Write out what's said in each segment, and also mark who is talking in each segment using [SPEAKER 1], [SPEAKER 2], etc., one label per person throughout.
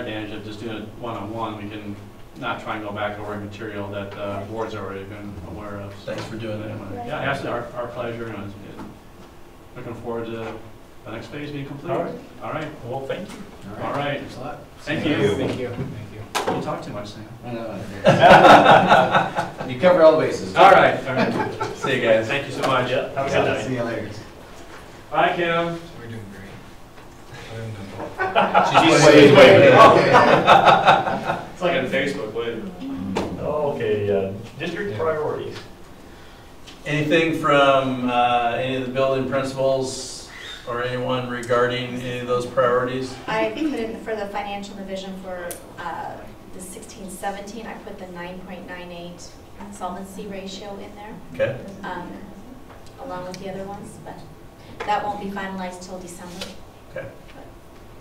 [SPEAKER 1] advantage of just doing it one-on-one, we can not try and go back over material that the board's already been aware of. So-
[SPEAKER 2] Thanks for doing that.
[SPEAKER 1] Yeah, absolutely, our, our pleasure, and it's- and looking forward to the next phase being complete.
[SPEAKER 2] All right.
[SPEAKER 1] All right,
[SPEAKER 2] Well, thank you.
[SPEAKER 1] all right,
[SPEAKER 3] Thanks a lot.
[SPEAKER 1] thank you.
[SPEAKER 3] Thank you. Thank you.
[SPEAKER 1] Don't talk too much, Sam.
[SPEAKER 3] I know. You cover all the bases.
[SPEAKER 1] All right, all right,
[SPEAKER 2] See you guys.
[SPEAKER 1] thank you so much.
[SPEAKER 2] Yeah, have a good
[SPEAKER 1] Yeah.
[SPEAKER 2] night.
[SPEAKER 3] See you later.
[SPEAKER 1] Bye, Kim.
[SPEAKER 4] We're doing great. I'm done.
[SPEAKER 1] She's
[SPEAKER 2] waving.
[SPEAKER 1] waving. It's like on Facebook, wait.
[SPEAKER 2] Okay, uh, district priorities. Anything from uh, any of the building principals or anyone regarding any of those priorities?
[SPEAKER 5] I put in for the financial division for uh, the sixteen seventeen, I put the nine point nine eight solvency ratio in there,
[SPEAKER 2] Okay,
[SPEAKER 5] um, along with the other ones, but that won't be finalized till December.
[SPEAKER 2] Okay.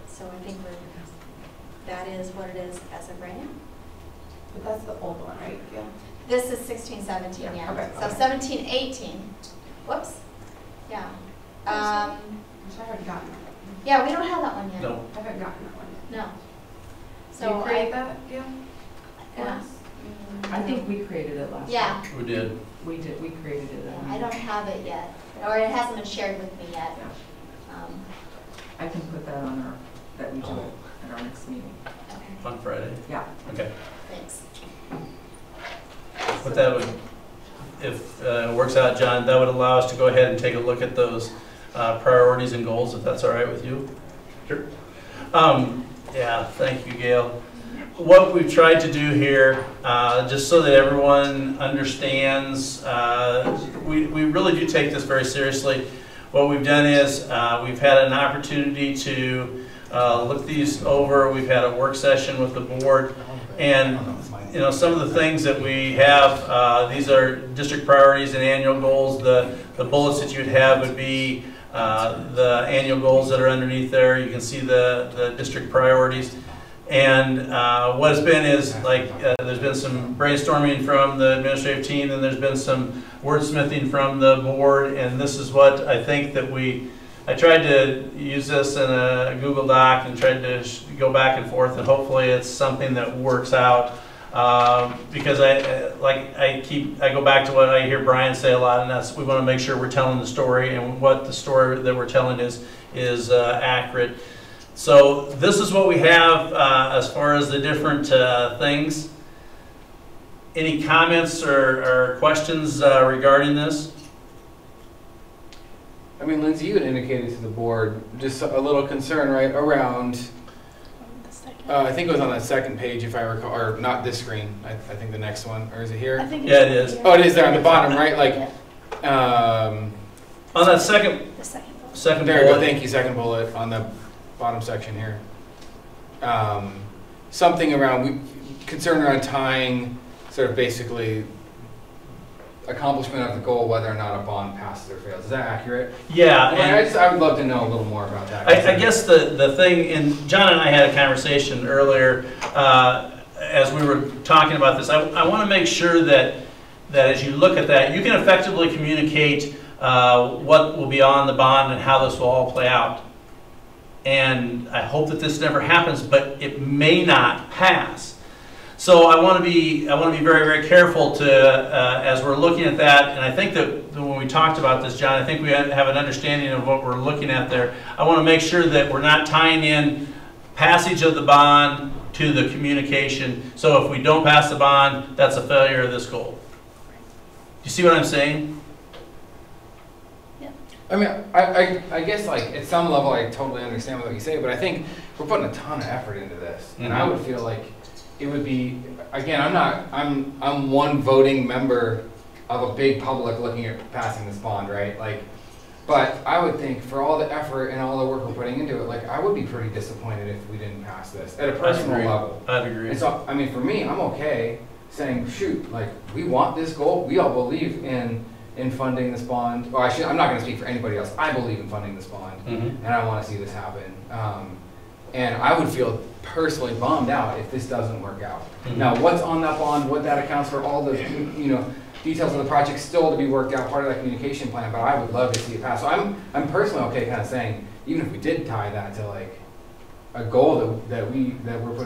[SPEAKER 5] So I think we're, that is what it is as of right now.
[SPEAKER 6] But that's the old one, right? Yeah.
[SPEAKER 5] This is sixteen seventeen,
[SPEAKER 6] Yeah, okay,
[SPEAKER 5] yeah. So
[SPEAKER 6] okay.
[SPEAKER 5] seventeen eighteen, whoops, yeah. Um,
[SPEAKER 6] Which I haven't gotten. that one.
[SPEAKER 5] Yeah, we don't have that one yet.
[SPEAKER 2] no,
[SPEAKER 6] I haven't gotten that one yet.
[SPEAKER 5] No.
[SPEAKER 6] Did you
[SPEAKER 5] So
[SPEAKER 6] create
[SPEAKER 5] I.
[SPEAKER 6] that, Gail?
[SPEAKER 5] yeah.
[SPEAKER 7] I think we created it last.
[SPEAKER 5] Yeah.
[SPEAKER 2] we did.
[SPEAKER 7] We did, we created it.
[SPEAKER 5] Yeah, I don't have it yet, or it hasn't been shared with me yet. Um,
[SPEAKER 7] I can put that on our, that we do it at our next meeting.
[SPEAKER 5] Okay,
[SPEAKER 2] On Friday,
[SPEAKER 7] Yeah.
[SPEAKER 2] okay.
[SPEAKER 5] thanks.
[SPEAKER 2] But that would, if uh, it works out, John, that would allow us to go ahead and take a look at those uh, priorities and goals, if that's all right with you? Sure. Yeah, thank you, Gail. What we've tried to do here, uh, just so that everyone understands, uh, we we really do take this very seriously. What we've done is, uh, we've had an opportunity to uh, look these over, we've had a work session with the board, and you know, some of the things that we have, uh, these are district priorities and annual goals. The, the bullets that you'd have would be, uh, the annual goals that are underneath there. You can see the, the district priorities. And, uh, what it's been is, like, uh, there's been some brainstorming from the administrative team, and there's been some wordsmithing from the board, and this is what I think that we, I tried to use this in a Google Doc and tried to sh- go back and forth, and hopefully it's something that works out um, because I, uh, like, I keep, I go back to what I hear Brian say a lot, and that's, we want to make sure we're telling the story, and what the story that we're telling is, is uh, accurate. So this is what we have uh, as far as the different uh, things. Any comments or, or questions uh, regarding this?
[SPEAKER 8] I mean, Lindsay, you had indicated to the board just a little concern, right, around,
[SPEAKER 5] Um,
[SPEAKER 8] uh, I think it was on that second page, if I recall, or not this screen, I, I think the next one, or is it here?
[SPEAKER 2] Yeah, it is.
[SPEAKER 8] Oh, it is there on the bottom, right, like, um,
[SPEAKER 2] On that second,
[SPEAKER 5] The second one.
[SPEAKER 2] second
[SPEAKER 8] there you go,
[SPEAKER 2] bullet,
[SPEAKER 8] thank you, second bullet on the bottom section here. Um, something around, we, concern around tying, sort of basically accomplishment of the goal, whether or not a bond passes or fails, is that accurate?
[SPEAKER 2] yeah. Uh, and-
[SPEAKER 8] I just, I would love to know a little more about that.
[SPEAKER 2] I, I guess the, the thing, and John and I had a conversation earlier, uh, as we were talking about this, I, I want to make sure that, that as you look at that, you can effectively communicate, uh, what will be on the bond and how this will all play out. And I hope that this never happens, but it may not pass. So I want to be, I want to be very, very careful to, uh, as we're looking at that, and I think that when we talked about this, John, I think we have an understanding of what we're looking at there. I want to make sure that we're not tying in passage of the bond to the communication. So if we don't pass the bond, that's a failure of this goal. You see what I'm saying?
[SPEAKER 8] I mean, I, I, I guess like at some level, I totally understand what you say, but I think we're putting a ton of effort into this, and I would feel like it would be again. I'm not. I'm I'm one voting member of a big public looking at passing this bond, right? Like, but I would think for all the effort and all the work we're putting into it, like I would be pretty disappointed if we didn't pass this at a personal
[SPEAKER 2] agree.
[SPEAKER 8] level.
[SPEAKER 2] I'd agree.
[SPEAKER 8] And so, I mean, for me, I'm okay saying, shoot, like, we want this goal. We all believe in, in funding this bond. Or I should, I'm not going to speak for anybody else. I believe in funding this bond,
[SPEAKER 2] Mhm.
[SPEAKER 8] and I want to see this happen. Um, and I would feel personally bummed out if this doesn't work out.
[SPEAKER 2] Mhm.
[SPEAKER 8] Now, what's on that bond, what that accounts for, all the, you know, details of the project still to be worked out, part of that communication plan, but I would love to see it pass. So I'm, I'm personally okay kind of saying, even if we did tie that to like a goal that, that we, that we're putting